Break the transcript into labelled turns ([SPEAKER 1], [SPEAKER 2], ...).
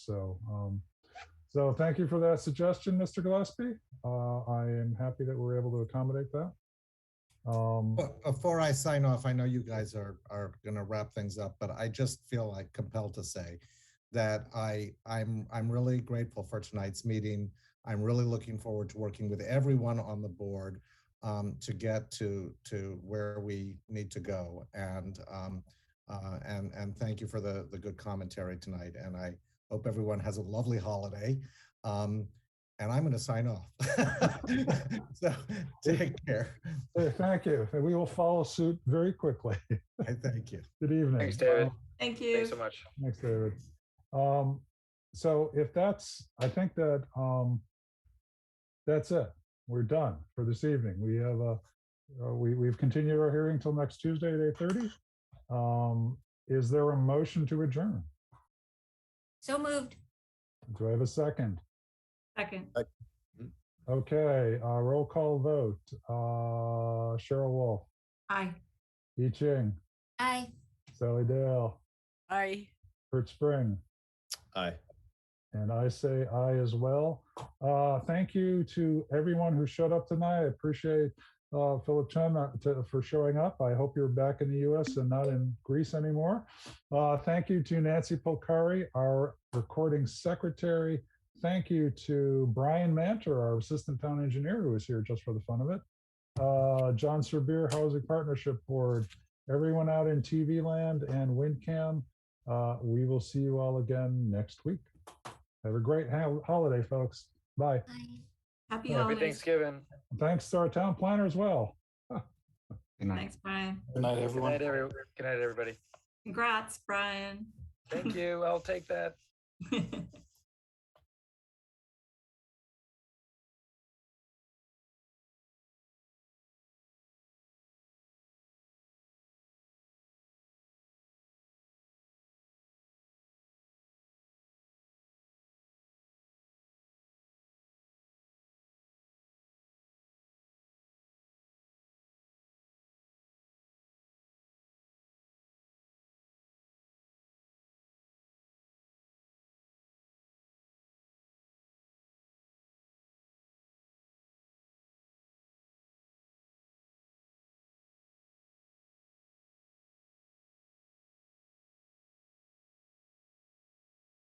[SPEAKER 1] So, um, so thank you for that suggestion, Mr. Gillespie. Uh, I am happy that we're able to accommodate that. Um,
[SPEAKER 2] Well, Before I sign off, I know you guys are, are gonna wrap things up, but I just feel like compelled to say that I, I'm, I'm really grateful for tonight's meeting. I'm really looking forward to working with everyone on the board um, to get to, to where we need to go. And, um, uh, and, and thank you for the, the good commentary tonight. And I hope everyone has a lovely holiday. Um, and I'm gonna sign off. So take care.
[SPEAKER 1] hey, thank you. And we will follow suit very quickly.
[SPEAKER 2] I thank you.
[SPEAKER 1] Good evening.
[SPEAKER 3] Thanks, David.
[SPEAKER 1] Um,
[SPEAKER 4] Thank you.
[SPEAKER 3] Thanks so much.
[SPEAKER 1] Thanks, David. Um, so if that's, I think that, um, that's it. We're done for this evening. We have a, uh, we, we've continued our hearing till next Tuesday at eight thirty. Um, is there a motion to adjourn?
[SPEAKER 5] So moved.
[SPEAKER 1] Do I have a second?
[SPEAKER 5] Second.
[SPEAKER 1] Okay, uh, roll call vote. Uh, Cheryl Wolf,
[SPEAKER 5] Aye.
[SPEAKER 1] Yi Ching,
[SPEAKER 5] Aye.
[SPEAKER 1] Sally Dale,
[SPEAKER 6] Aye.
[SPEAKER 1] Kurt Spring.
[SPEAKER 7] Aye.
[SPEAKER 1] And I say aye as well. Uh, thank you to everyone who showed up tonight. I appreciate uh, Philip Chen uh, to, for showing up. I hope you're back in the US and not in Greece anymore. Uh, thank you to Nancy Polcari, our recording secretary. Thank you to Brian Mantor, our assistant town engineer, who was here just for the fun of it. Uh, John Serbier Housing Partnership Board, everyone out in TV land and WinCam. Uh, we will see you all again next week. Have a great ho- holiday, folks. Bye.
[SPEAKER 5] Aye.
[SPEAKER 4] Happy
[SPEAKER 3] Happy
[SPEAKER 4] holidays.
[SPEAKER 3] Thanksgiving.
[SPEAKER 1] Thanks to our town planner as well.
[SPEAKER 4] Thanks, Brian.
[SPEAKER 3] Good night, every, good night, everybody.
[SPEAKER 4] Congrats, Brian.
[SPEAKER 3] Thank you. I'll take that.
[SPEAKER 4] Good